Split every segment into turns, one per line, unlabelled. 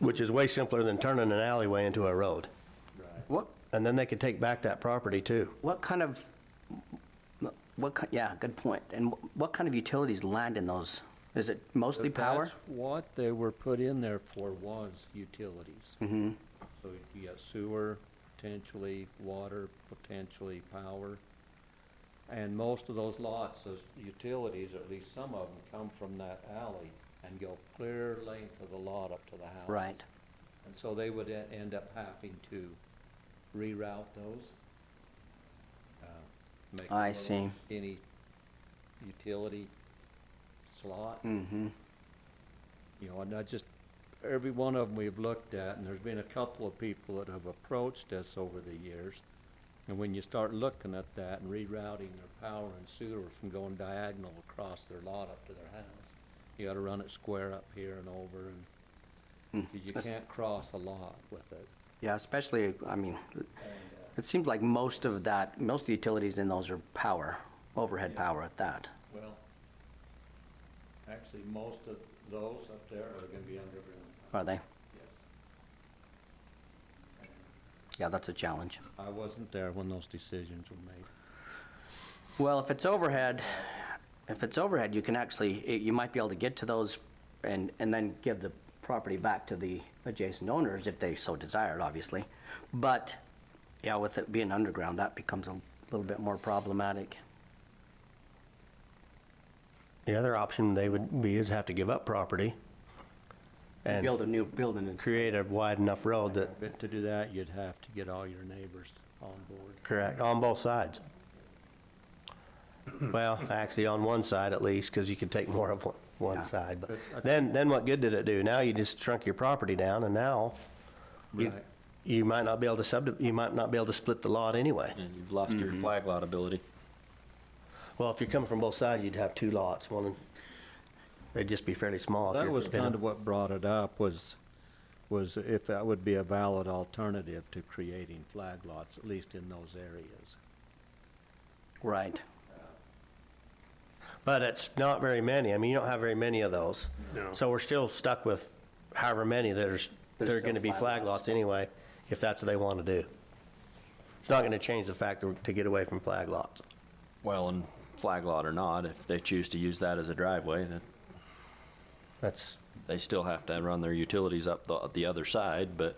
which is way simpler than turning an alleyway into a road.
What,
And then they could take back that property too.
what kind of, what, ki- yeah, good point. And wh- what kind of utilities land in those? Is it mostly power?
That's what they were put in there for was utilities.
Mm-hmm.
So you got sewer, potentially water, potentially power. And most of those lots, those utilities, or at least some of them, come from that alley and go clear length of the lot up to the house.
Right.
And so they would e- end up having to reroute those. uh, make
I
them a
see.
little Any utility slot.
Mm-hmm.
You know, and I just, every one of them we've looked at, and there's been a couple of people that have approached us over the years. And when you start looking at that and rerouting their power and sewer from going diagonal across their lot up to their house, you gotta run it square up here and over, and, cause you
That's-
can't cross a lot with it.
Yeah, especially, I mean,
uh,
it seems like most of that, most of the utilities in those are power, overhead
Yeah.
power at that.
Well, actually, most of those up there are gonna be underground.
Are they?
Yes.
Yeah, that's a challenge.
I wasn't there when those decisions were made.
Well, if it's overhead, if it's overhead, you can actually, it- you might be able to get to those and, and then give the property back to the adjacent owners if they so desired, obviously. But, yeah, with it being underground, that becomes a little bit more problematic.
The other option they would be is have to give up property and
Build a new, build a new,
create a wide enough road that,
But to do that, you'd have to get all your neighbors on board.
correct, on both sides. Well, actually, on one side at least, because you could take more of one,
Yeah.
one side.
But
But
I-
then, then what good did it do? Now you just shrunk your property down and now you,
Right.
you might not be able to sub, you might not be able to split the lot anyway.
And you've lost your
Mm-hmm.
flag lot ability.
Well, if you're coming from both sides, you'd have two lots, one, they'd just be fairly small. if
That
you're
was
gonna-
kind of what brought it up was, was if that would be a valid alternative to creating flag lots, at least in those areas.
right.
But it's not very many. I mean, you don't have very many of those. So we're still stuck with however many there's,
There's
there are
still
going to be
flag
flag
lots.
lots anyway, if that's what they want to do. It's not going to change the fact that we're- to get away from flag lots.
Well, and flag lot or not, if they choose to use that as a driveway, that
That's,
they still have to run their utilities up the, the other side, but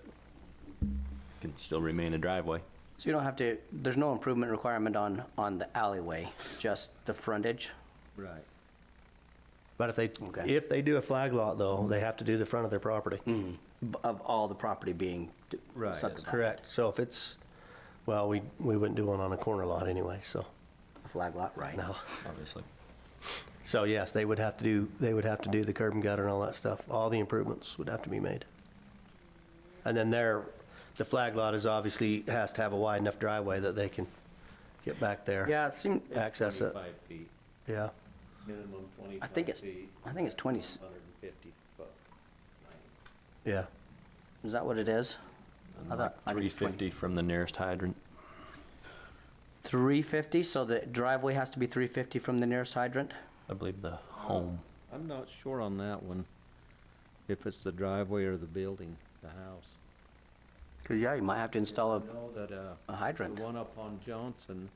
can still remain a driveway.
So you don't have to, there's no improvement requirement on, on the alleyway, just the frontage?
Right.
but if they,
Okay.
if they do a flag lot though, they have to do the front of their property.
Mm, b- Of all the property being d-
Right.
subdivided?
Correct. So if it's, well, we, we wouldn't do one on a corner lot anyway, so,
Flag lot, right.
no.
Obviously.
So yes, they would have to do, they would have to do the curb and gutter and all that stuff. All the improvements would have to be made. And then there, the flag lot is obviously, has to have a wide enough driveway that they can get back there.
Yeah, it seemed,
Access it,
Twenty-five feet,
yeah.
minimum
I
twenty-five
think it's,
feet,
I think it's 20, s-
hundred and fifty foot.
Yeah,
is that what it is? I thought- I think
Three
it's 20.
fifty from the nearest hydrant.
350, so the driveway has to be 350 from the nearest hydrant?
I believe the home.
I'm not sure on that one, if it's the driveway or the building, the house.
Because, yeah, you might have to install
I know that, uh,
a hydrant,
the one up on Johnson,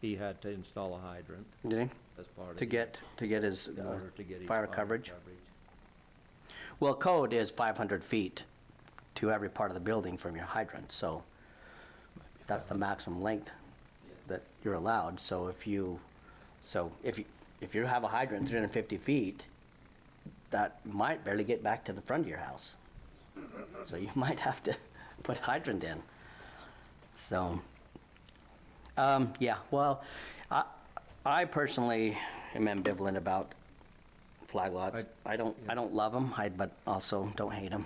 he had to install a hydrant
did he?
as part of.
To get, to get his
his- In
uh,
order to get his.
fire coverage? Well, code is 500 feet to every part of the building from your hydrant, so that's the maximum length that you're allowed. So if you, so if you, if you have a hydrant 350 feet, that might barely get back to the front of your house. So you might have to put hydrant in. So, um, yeah, well, I, I personally am ambivalent about flag lots. I don't, I don't love them, I, but also don't hate them.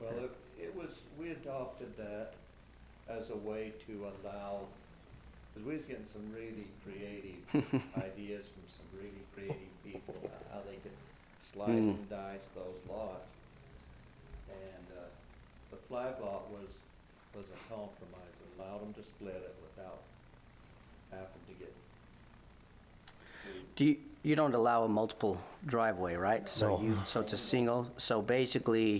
Well, it, it was, we adopted that as a way to allow, because we was getting some really creative ideas from some really creative people, about how they could slice
Mm.
and dice those lots. And, uh, the flag lot was, was a compromise, It allowed them to split it without having to get.
Do you, you don't allow a multiple driveway, right? So
No.
you, so it's a single, so basically,